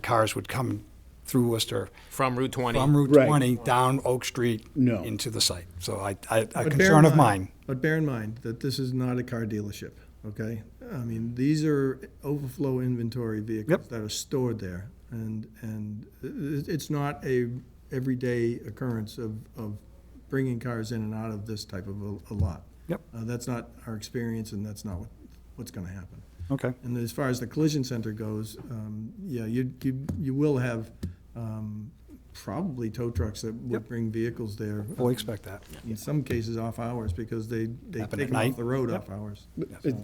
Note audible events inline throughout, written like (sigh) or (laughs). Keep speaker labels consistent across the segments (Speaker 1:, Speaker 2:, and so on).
Speaker 1: cars would come through Worcester
Speaker 2: from Route 20.
Speaker 1: from Route
Speaker 3: Right.
Speaker 1: 20 down Oak Street
Speaker 3: No.
Speaker 1: into the site. So I, I, a
Speaker 4: But bear in
Speaker 1: concern of
Speaker 4: mind-
Speaker 1: mine.
Speaker 4: But bear in mind that this is not a car dealership, okay? I mean, these are overflow inventory vehicles
Speaker 1: Yep.
Speaker 4: that are stored there. And, and it- it's not a everyday occurrence of, of bringing cars in and out of this type of a- a lot.
Speaker 1: Yep.
Speaker 4: Uh, That's not our experience and that's not what, what's gonna happen.
Speaker 1: Okay.
Speaker 4: And as far as the collision center goes, um, yeah, you, you, you will have, um, probably tow trucks that would
Speaker 1: Yep.
Speaker 4: bring vehicles there.
Speaker 1: We'll expect that.
Speaker 4: In some cases, off hours, because they, they
Speaker 1: Happen
Speaker 4: take
Speaker 1: at
Speaker 4: them off
Speaker 1: night.
Speaker 4: the road
Speaker 1: Yep.
Speaker 4: off hours.
Speaker 3: It-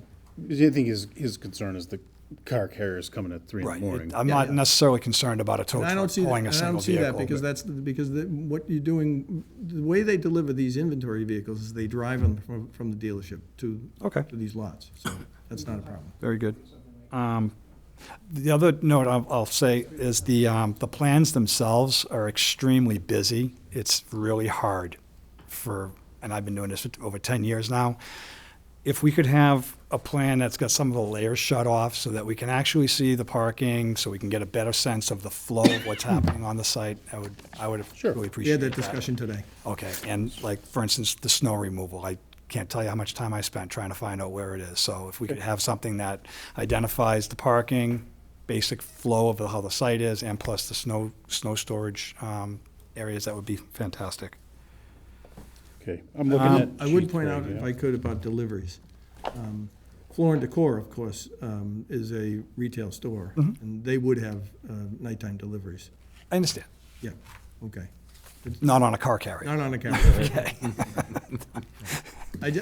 Speaker 3: I think his, his concern is the car carrier's coming at three in the
Speaker 1: Right.
Speaker 3: morning.
Speaker 1: It- I'm not necessarily concerned about a tow
Speaker 4: And I
Speaker 1: truck
Speaker 4: don't see, that-
Speaker 1: pulling
Speaker 4: and
Speaker 1: a
Speaker 4: I
Speaker 1: single
Speaker 4: don't see that,
Speaker 1: vehicle.
Speaker 4: because that's, the- because the- what you're doing, the way they deliver these inventory vehicles is they drive them from, from the dealership to,
Speaker 1: Okay.
Speaker 4: to these lots, so that's not a problem.
Speaker 1: Very good. Um, The other note I'll, I'll say is the, um, the plans themselves are extremely busy. It's really hard for, and I've been doing this for over ten years now. If we could have a plan that's got some of the layers shut off so that we can actually see the parking, so we can get a better sense of the flow of what's happening on the site, I would, I would
Speaker 3: Sure.
Speaker 1: really
Speaker 4: We
Speaker 1: appreciate
Speaker 4: had
Speaker 1: that.
Speaker 4: that discussion today.
Speaker 1: Okay, and like, for instance, the snow removal, I can't tell you how much time I spent trying to find out where it is. So if we could have something that identifies the parking, basic flow of how the site is, and plus the snow, snow storage um, areas, that would be fantastic.
Speaker 3: Okay, I'm looking at.
Speaker 4: Um, I would
Speaker 3: sheet
Speaker 4: point
Speaker 3: three,
Speaker 4: out, if
Speaker 3: yeah.
Speaker 4: I could, about deliveries. Um, Floor and Decor, of course, um, is a retail store,
Speaker 1: Mm-hmm.
Speaker 4: and they would have uh, nighttime deliveries.
Speaker 1: I understand,
Speaker 4: Yeah, okay.
Speaker 1: not on a car carrier.
Speaker 4: Not on
Speaker 1: (laughs)
Speaker 4: a (laughs) camera.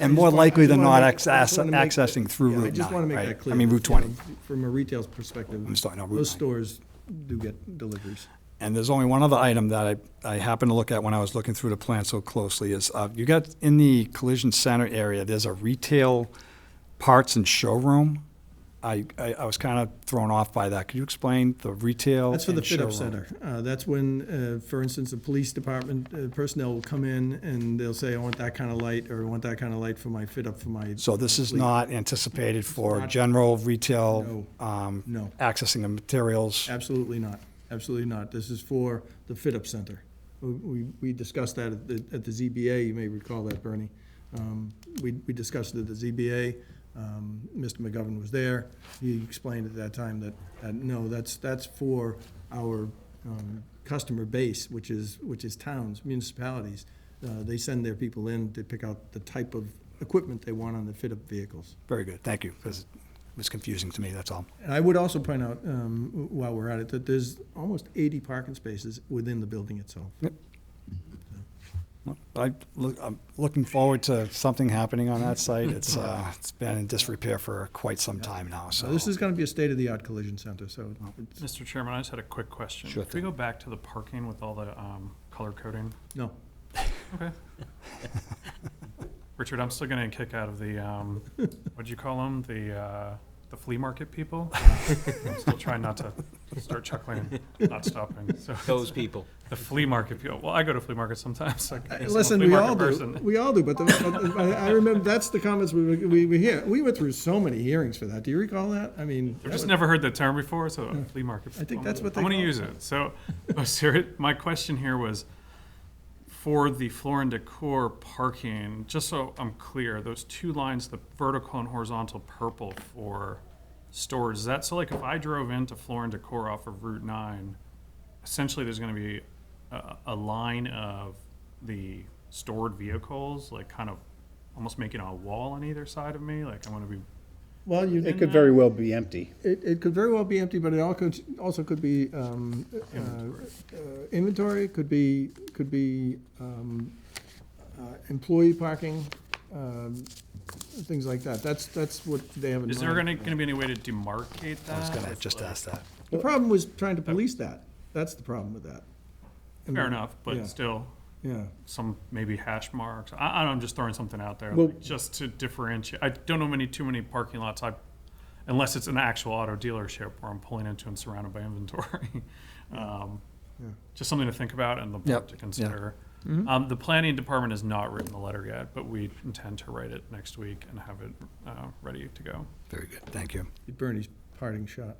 Speaker 1: And more likely than not access- accessing through
Speaker 4: I
Speaker 1: Route
Speaker 4: just want
Speaker 1: 9,
Speaker 4: to make
Speaker 1: right?
Speaker 4: that clear.
Speaker 1: I mean,
Speaker 4: that,
Speaker 1: Route
Speaker 4: you know,
Speaker 1: 20.
Speaker 4: From a retail perspective.
Speaker 1: I'm sorry, no, Route 9.
Speaker 4: Those stores do get deliveries.
Speaker 1: And there's only one other item that I, I happened to look at when I was looking through the plan so closely is, uh, you got, in the collision center area, there's a retail parts and showroom. I, I, I was kind of thrown off by that. Could you explain the retail
Speaker 4: That's for the
Speaker 1: Oh, and
Speaker 4: fit-up
Speaker 1: showroom?
Speaker 4: center. Uh, That's when, uh, for instance, the police department uh, personnel will come in and they'll say, I want that kind of light, or I want that kind of light for my fit-up for my.
Speaker 1: So this is
Speaker 4: fleet."
Speaker 1: not anticipated for
Speaker 4: not-
Speaker 1: general retail,
Speaker 4: No.
Speaker 1: um,
Speaker 4: No,
Speaker 1: accessing of materials?
Speaker 4: absolutely not. Absolutely not. This is for the fit-up center. We- We, we discussed that at the, at the ZBA, you may recall that, Bernie. Um, We, we discussed it at the ZBA. Um, Mr. McGovern was there. He explained at that time that, that, no, that's, that's for our um, customer base, which is, which is towns, municipalities. Uh, They send their people in to pick out the type of equipment they want on the fit-up vehicles.
Speaker 1: Very good, thank you, because it was confusing to me, that's all.
Speaker 4: And I would also point out, um, w- while we're at it, that there's almost 80 parking spaces within the building itself.
Speaker 1: I look, I'm looking forward to something happening on that site.
Speaker 4: (laughs)
Speaker 1: It's, uh, it's been in disrepair for quite some time now, so.
Speaker 4: So this is going to be a state-of-the-art collision center, so it's,
Speaker 5: Mr. Chairman, I just had a quick question.
Speaker 1: Sure
Speaker 5: Could we go back to the parking with all the um, color coding?
Speaker 4: no.
Speaker 5: Okay. (laughs) Richard, I'm still getting a kick out of the, um, what'd you call them? The, uh, the flea market people? (laughs) I'm still trying not to start chuckling, not stopping. So
Speaker 2: Those people.
Speaker 5: the flea market people, well, I go to flea markets sometimes. so I guess I'm a
Speaker 4: Uh, Listen,
Speaker 5: flea
Speaker 4: we
Speaker 5: market
Speaker 4: all do,
Speaker 5: person.
Speaker 4: we all do, but the- but the- I I remember, that's the comments we, were- we, we hear. We went through so many hearings for that. Do you recall that? I mean.
Speaker 5: I've just never heard the term before, so flea market.
Speaker 4: Hmm. I think that's what they
Speaker 5: I'm going
Speaker 4: call
Speaker 5: to
Speaker 4: it.
Speaker 5: use it. So, (laughs) oh, seri- my question here was for the floor and decor parking, just so I'm clear, those two lines, the vertical and horizontal purple for stores, is that so like if I drove into floor and decor off of Route 9, essentially there's going to be a, a line of the stored vehicles, like kind of almost making a wall on either side of me? Like I'm going to be
Speaker 4: Well, you,
Speaker 3: It could very well be empty.
Speaker 4: it, it could very well be empty, but it all could, also could be, um, uh, uh, inventory, could be, could be, um, uh, employee parking, um, things like that. That's, that's what they have in mind.
Speaker 5: Is there gonna, gonna be any way to demarcate that?
Speaker 1: I was gonna just ask that.
Speaker 4: The problem was trying to police that. That's the problem with that. I
Speaker 5: Fair
Speaker 4: mean,
Speaker 5: enough,
Speaker 4: um, Yeah.
Speaker 5: but still,
Speaker 4: Yeah.
Speaker 5: some maybe hash marks. I, I don't know, I'm just throwing something out there,
Speaker 3: Well-
Speaker 5: like, just to differentiate. I don't know many, too many parking lots, I, unless it's an actual auto dealership where I'm pulling into and surrounded by (laughs) inventory. Um,
Speaker 4: Yeah.
Speaker 5: Just something to think about and the
Speaker 1: Yep,
Speaker 5: board to
Speaker 1: yeah.
Speaker 5: consider. Um, the planning department has not written the letter yet, but we intend to write it next week and have it, uh, ready to go.
Speaker 1: Very good, thank you.
Speaker 4: Bernie's parting shot.